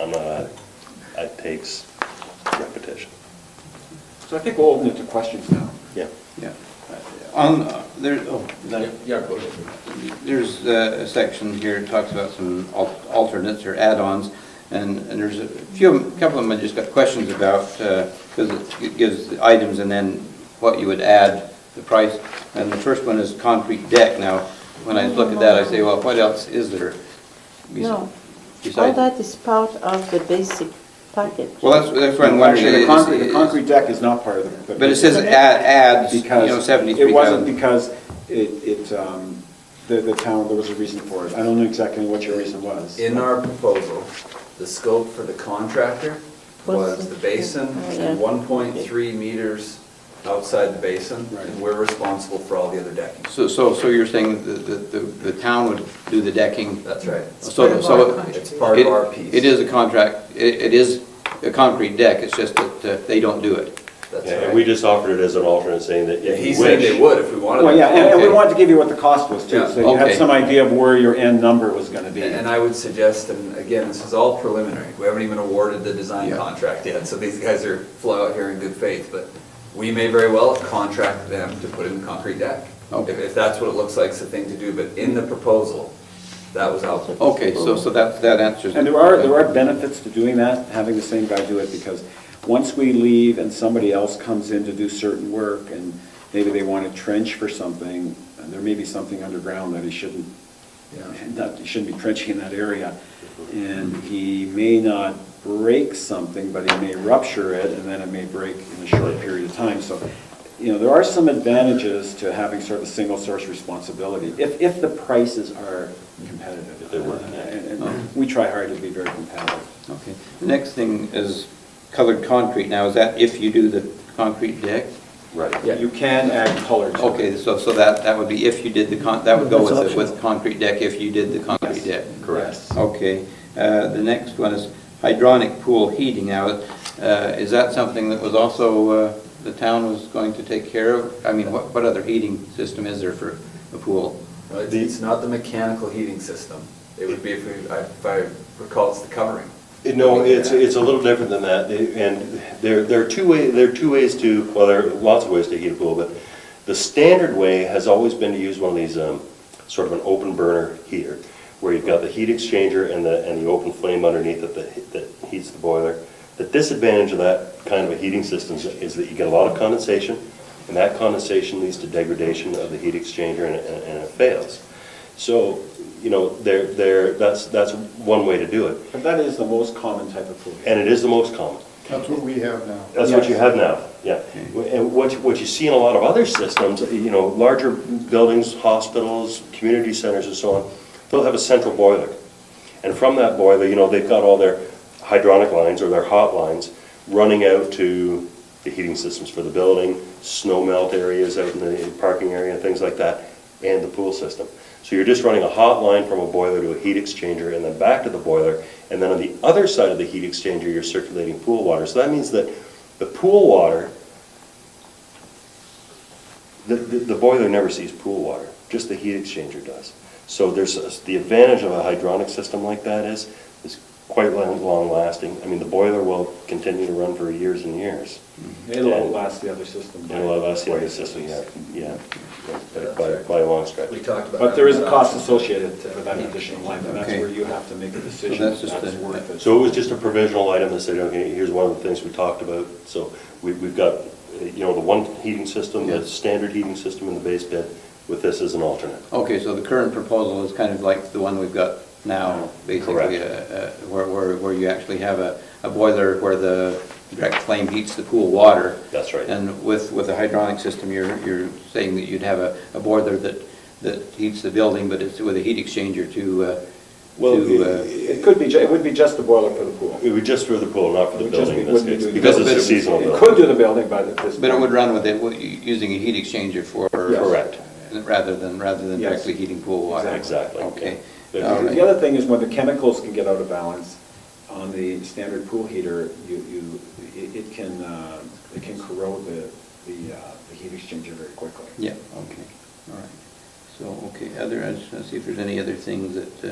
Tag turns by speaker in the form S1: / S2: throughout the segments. S1: I'm not, it takes repetition.
S2: So I think we'll open it to questions now.
S1: Yeah.
S3: Yeah. On, uh, there, oh, that-
S2: Yeah, go ahead.
S3: there's uh, a section here, that talks about some al- alternates or add-ons, and, and there's a few, a couple of them I just got questions about, because it gives the items and then what you would add, the price. And the first one is concrete deck. Now, when I look at that, I say, well, what else is there? bes-
S4: No. All
S3: besides-
S4: that is part of the basic package.
S3: Well, that's, that's what I'm wondering.
S2: Actually, the
S3: is-
S2: concrete, the
S3: is-
S2: concrete deck is not part of the.
S3: But it says add, adds, you
S2: Because
S3: know, seventy-three thousand.
S2: It wasn't because it, it, um, the, the town, there was a reason for it. I don't know exactly what your reason was.
S5: In our proposal, the scope for the contractor was the basin
S4: Oh, yeah.
S5: and 1.3 meters outside the basin,
S2: Right.
S5: and we're responsible for all the other decking.
S3: So, so, so you're saying that the, the, the town would do the decking?
S5: That's right.
S3: So, so. it-
S5: It's part of our
S3: it-
S5: piece.
S3: It is a contract, it, it is a concrete deck, it's just that uh, they don't do it.
S5: That's
S1: Yeah, And we
S5: right.
S1: just offered it as an alternate, saying that
S5: Yeah,
S1: if
S5: he
S1: you
S5: said they
S1: wish.
S5: would if we wanted
S2: Well, yeah,
S5: them.
S2: and and we
S3: Okay.
S2: wanted to give you what the cost was too,
S5: Yeah,
S2: so you had
S3: okay.
S2: some idea of where your end number was gonna be.
S5: And I would suggest, and again, this is all preliminary, we haven't even awarded the design
S3: Yeah.
S5: contract yet, so these guys are fly out here in good faith, but we may very well contract them to put in the concrete deck. If,
S3: Okay.
S5: if that's what it looks like, it's the thing to do, but in the proposal, that was out.
S3: Okay, so, so that, that answers.
S2: And there are, there are benefits to doing that, having the same guy do it, because once we leave and somebody else comes in to do certain work, and maybe they want to trench for something, and there may be something underground that he shouldn't,
S5: Yeah.
S2: not, he shouldn't be trenching in that area. And he may not break something, but he may rupture it, and then it may break in a short period of time, so, you know, there are some advantages to having sort of a single source responsibility, if, if the prices are competitive.
S1: If they were.
S2: And- and- and we try hard to be very competitive.
S3: Okay, the next thing is colored concrete, now is that if you do the concrete deck?
S1: Right.
S2: You can add color to it.
S3: Okay, so, so that, that would be if you did the con, that would go
S2: That's
S3: with, the-
S2: optional.
S3: with concrete deck, if you did the concrete deck?
S2: Correct.
S3: Okay, uh, the next one is hydronic pool heating. Now, uh, is that something that was also, uh, the town was going to take care of? I mean, what, what other heating system is there for a pool?
S5: No, It's it's not the mechanical heating system. It would be if we, I- if I recall, it's the covering.
S1: No, it's, it's a little different than that, and there, there are two ways, there are two ways to, well, there are lots of ways to heat a pool, but the standard way has always been to use one of these, um, sort of an open burner heater, where you've got the heat exchanger and the, and the open flame underneath it that, that heats the boiler. The disadvantage of that kind of a heating system is- is that you get a lot of condensation, and that condensation leads to degradation of the heat exchanger and, and and it fails. So, you know, there, there, that's, that's one way to do it.
S2: But that is the most common type of pool.
S1: And it is the most common.
S6: That's what we have now.
S1: That's what you have now, yeah. And what, you- what you see in a lot of other systems, you know, larger buildings, hospitals, community centers and so on, they'll have a central boiler. And from that boiler, you know, they've got all their hydronic lines or their hot lines running out to the heating systems for the building, snow melt areas out in the parking area, and things like that, and the pool system. So you're just running a hot line from a boiler to a heat exchanger and then back to the boiler. And then on the other side of the heat exchanger, you're circulating pool water. So that means that the pool water, the, the the boiler never sees pool water, just the heat exchanger does. So there's, a- the advantage of a hydronic system like that is, is quite long lasting. I mean, the boiler will continue to run for years and years.
S2: It'll outlast the other system.
S1: It'll outlast the other system, yeah, yeah, by, by a long stretch.
S5: We talked about.
S2: But there is a cost associated to that additional line, and that's
S3: Okay.
S2: where you have to make a decision.
S3: So that's just
S2: That's
S3: the-
S2: worth it.
S1: So it was just a provisional item that said, okay, here's one of the things we talked about. So we, we've got, uh, you know, the one heating system, the
S3: Yeah.
S1: standard heating system in the base bid with this as an alternate.
S3: Okay, so the current proposal is kind of like the one we've got now, basically, uh, uh, where, where, where you actually have a, a boiler where the direct flame heats the pool water.
S1: That's right.
S3: And with, with a hydronic system, you're, you're saying that you'd have a, a boiler that, that heats the building, but it's with a heat exchanger to, uh,
S1: Well,
S3: to,
S1: it-
S3: uh,
S2: It could be, ju- it would be just the boiler for the pool.
S1: It would just for the pool, not for the
S2: It would just
S1: building in
S2: be-
S1: this
S2: wouldn't
S1: case,
S2: do-
S1: because it's
S3: But it
S1: a
S3: would-
S1: seasonal
S2: It
S1: building.
S2: could do the building, but at this.
S3: But it would
S2: point-
S3: run with it, with- using a heat exchanger for.
S2: Yes.
S1: Correct.
S3: Rather than, rather than
S2: Yes.
S3: directly heating pool water.
S1: Exactly.
S3: Okay.
S1: Yeah.
S3: All
S2: The
S3: right.
S2: other thing is when the chemicals can get out of balance on the standard pool heater, you, you, it it can, uh, it can corrode the, the, uh, the heat exchanger very quickly.
S3: Yeah, okay, all right. So, okay, other, let's see if there's any other things that,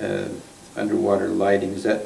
S3: uh, uh, underwater lighting, is that